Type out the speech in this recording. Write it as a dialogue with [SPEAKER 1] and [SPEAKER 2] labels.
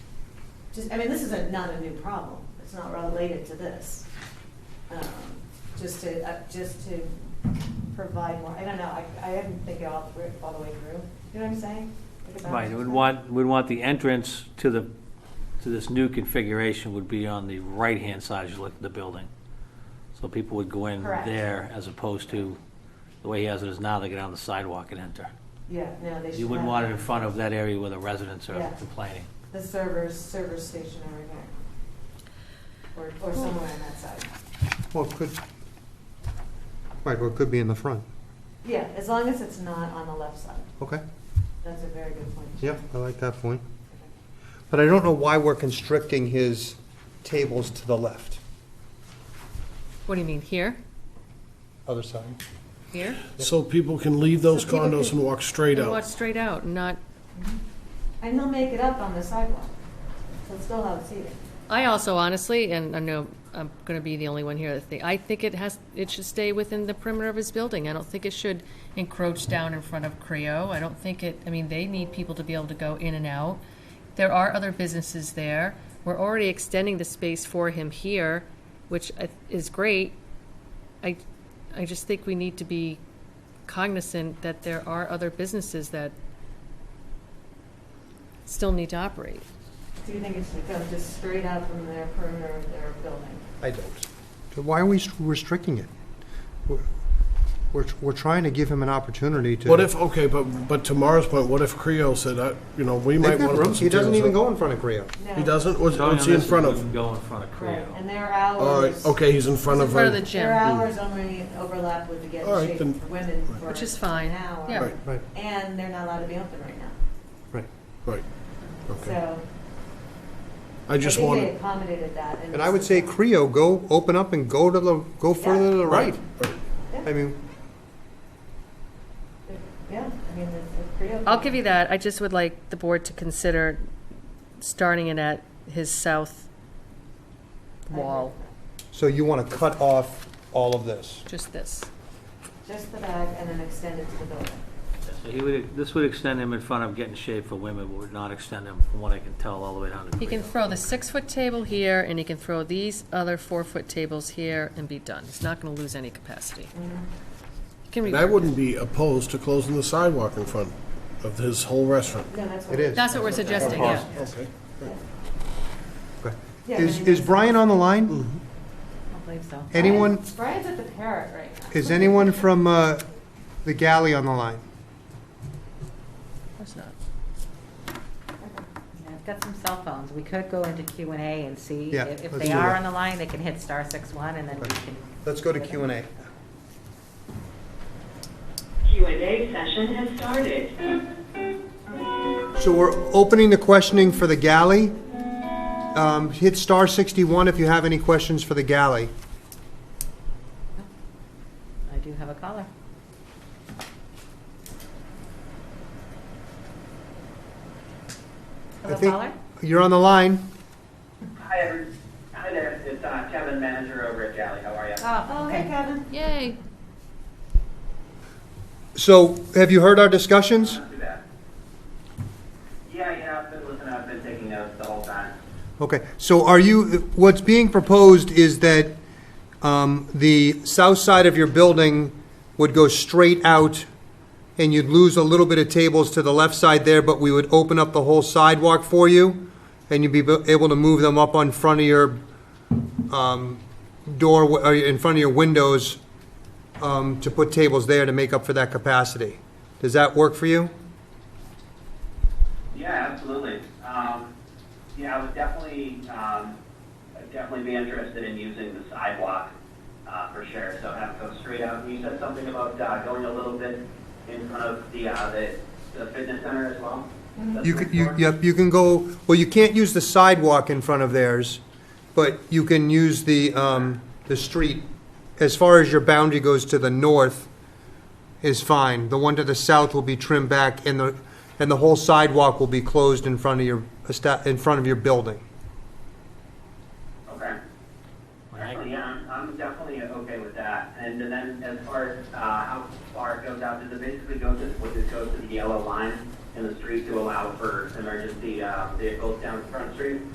[SPEAKER 1] just, I mean, this is a, not a new problem, it's not related to this. Um, Just to, uh, just to provide more, I don't know, I, I didn't think it all through, all the way through, you know what I'm saying? Like about-
[SPEAKER 2] Right, we'd want, we'd want the entrance to the, to this new configuration would be on the right-hand side as you look at the building. So people would go in
[SPEAKER 1] Correct.
[SPEAKER 2] there as opposed to, the way he has it is now, they get on the sidewalk and enter.
[SPEAKER 1] Yeah, no, they should.
[SPEAKER 2] You wouldn't
[SPEAKER 1] have
[SPEAKER 2] want it in front of that area where the residents are
[SPEAKER 1] Yeah.
[SPEAKER 2] complaining.
[SPEAKER 1] The servers, server station over here. Or, or somewhere on that side.
[SPEAKER 3] Well, it could, right, or it could be in the front.
[SPEAKER 1] Yeah, as long as it's not on the left side,
[SPEAKER 3] Okay,
[SPEAKER 1] that's a very good point.
[SPEAKER 3] yeah, I like that point. But I don't know why we're constricting his tables to the left.
[SPEAKER 4] What do you mean, here?
[SPEAKER 3] Other side.
[SPEAKER 4] Here?
[SPEAKER 5] So people can leave those
[SPEAKER 1] So people
[SPEAKER 5] condos
[SPEAKER 1] can-
[SPEAKER 5] and walk straight
[SPEAKER 4] And walk
[SPEAKER 5] out.
[SPEAKER 4] straight out, and not,
[SPEAKER 1] And they'll make it up on the sidewalk, so it's still out seating.
[SPEAKER 4] I also honestly, and I know I'm going to be the only one here that think, I think it has, it should stay within the perimeter of his building. I don't think it should encroach down in front of Creo. I don't think it, I mean, they need people to be able to go in and out. There are other businesses there. We're already extending the space for him here, which I- is great. I, I just think we need to be cognizant that there are other businesses that still need to operate.
[SPEAKER 1] Do you think it should go just straight out from their perimeter of their building?
[SPEAKER 3] I don't. So why are we restricting it? We're- We're, we're trying to give him an opportunity to.
[SPEAKER 5] What if, okay, but, but to Mara's point, what if Creo said, uh, you know, we
[SPEAKER 3] They've
[SPEAKER 5] might
[SPEAKER 3] got
[SPEAKER 5] want to
[SPEAKER 3] room.
[SPEAKER 5] put some
[SPEAKER 3] He doesn't
[SPEAKER 5] tables
[SPEAKER 3] even
[SPEAKER 5] up.
[SPEAKER 3] go in front of Creo.
[SPEAKER 1] No.
[SPEAKER 5] He doesn't? What's,
[SPEAKER 2] Showing
[SPEAKER 5] what's
[SPEAKER 2] on
[SPEAKER 5] he in
[SPEAKER 2] this,
[SPEAKER 5] front
[SPEAKER 2] we
[SPEAKER 5] of?
[SPEAKER 2] wouldn't Go in front of
[SPEAKER 1] Right,
[SPEAKER 2] Creo.
[SPEAKER 1] and their
[SPEAKER 5] All right,
[SPEAKER 1] hours.
[SPEAKER 5] okay, he's in front
[SPEAKER 4] In
[SPEAKER 5] of.
[SPEAKER 4] front of
[SPEAKER 5] a-
[SPEAKER 4] the gym.
[SPEAKER 1] Their hours only overlap with the get
[SPEAKER 5] All right,
[SPEAKER 1] in
[SPEAKER 5] then-
[SPEAKER 1] shape for women for
[SPEAKER 4] Which is fine,
[SPEAKER 1] an hour,
[SPEAKER 4] yeah.
[SPEAKER 5] Right,
[SPEAKER 3] Right,
[SPEAKER 1] And they're not allowed to be open right now,
[SPEAKER 3] right.
[SPEAKER 5] right, okay.
[SPEAKER 1] so.
[SPEAKER 5] I just
[SPEAKER 1] think
[SPEAKER 5] wanted.
[SPEAKER 1] They accommodated that. in
[SPEAKER 3] And
[SPEAKER 1] this
[SPEAKER 3] I would say
[SPEAKER 1] design.
[SPEAKER 3] Creo, go, open up and go to the, go further to the right.
[SPEAKER 5] right.
[SPEAKER 3] I mean,
[SPEAKER 1] Yeah, I mean, the, the Creo.
[SPEAKER 4] I'll give you that. I just would like the board to consider starting it at his south wall,
[SPEAKER 3] so you want to cut off all of this.
[SPEAKER 4] just this.
[SPEAKER 1] Just the bag and then extend it to the building.
[SPEAKER 2] So he would, this would extend him in front of getting shape for women, but would not extend him, from what I can tell, all the way down to
[SPEAKER 4] He can
[SPEAKER 2] Creo.
[SPEAKER 4] throw the six-foot table here, and he can throw these other four-foot tables here and be done. He's not gonna lose any capacity. Can we,
[SPEAKER 5] And I wouldn't be opposed to closing the sidewalk in front of his whole restaurant.
[SPEAKER 1] No, that's what.
[SPEAKER 3] It is.
[SPEAKER 4] that's what we're suggesting, yeah.
[SPEAKER 5] Okay.
[SPEAKER 3] Okay.
[SPEAKER 1] Yeah,
[SPEAKER 3] Is,
[SPEAKER 1] I mean,
[SPEAKER 3] is Brian on the line?
[SPEAKER 4] I believe so.
[SPEAKER 3] Anyone?
[SPEAKER 1] Brian's at the parrot right now.
[SPEAKER 3] Is anyone from uh, the galley on the line?
[SPEAKER 4] Of course not.
[SPEAKER 6] Yeah, I've got some cell phones. We could go into Q and A and see.
[SPEAKER 3] Yeah,
[SPEAKER 6] If if
[SPEAKER 3] let's
[SPEAKER 6] they
[SPEAKER 3] do
[SPEAKER 6] are
[SPEAKER 3] that.
[SPEAKER 6] on the line, they can hit star six one and then we can.
[SPEAKER 3] Let's go to Q and A.
[SPEAKER 7] Q&A session has started.
[SPEAKER 3] So we're opening the questioning for the galley. Um, Hit star 61 if you have any questions for the galley.
[SPEAKER 6] I do have a caller.
[SPEAKER 3] I
[SPEAKER 6] Hello,
[SPEAKER 3] think
[SPEAKER 6] caller?
[SPEAKER 3] You're on the line.
[SPEAKER 8] Hi, everyone. Hi there. It's uh, Kevin, manager over at Galley. How are you?
[SPEAKER 1] Oh, hey, Kevin.
[SPEAKER 4] Yay.
[SPEAKER 3] So have you heard our discussions?
[SPEAKER 8] Not too bad. Yeah, yeah. I've been listening. I've been taking notes the whole time.
[SPEAKER 3] Okay, so are you, what's being proposed is that um, the south side of your building would go straight out, and you'd lose a little bit of tables to the left side there, but we would open up the whole sidewalk for you, and you'd be bu- able to move them up on front of your um, door, or in front of your windows, um, to put tables there to make up for that capacity. Does that work for you?
[SPEAKER 8] Yeah, absolutely. Um, yeah, I would definitely, um, I'd definitely be interested in using the sidewalk uh, for sure. So have it go straight out. And You said something about uh, going a little bit in front of the uh, the, the fitness center as well. That's
[SPEAKER 3] You
[SPEAKER 8] what
[SPEAKER 3] can,
[SPEAKER 8] it's
[SPEAKER 3] you,
[SPEAKER 8] for?
[SPEAKER 3] yep, you can go, well, you can't use the sidewalk in front of theirs, but you can use the, um, the street. As far as your boundary goes to the north is fine. The one to the south will be trimmed back and the, and the whole sidewalk will be closed in front of your, esta- in front of your building.
[SPEAKER 8] Okay. Actually, yeah, I'm, I'm definitely okay with that. And then as far as, uh, how far it goes out, does it basically go to, would it go to the yellow line in the street to allow for emergency, uh, vehicles down Front Street?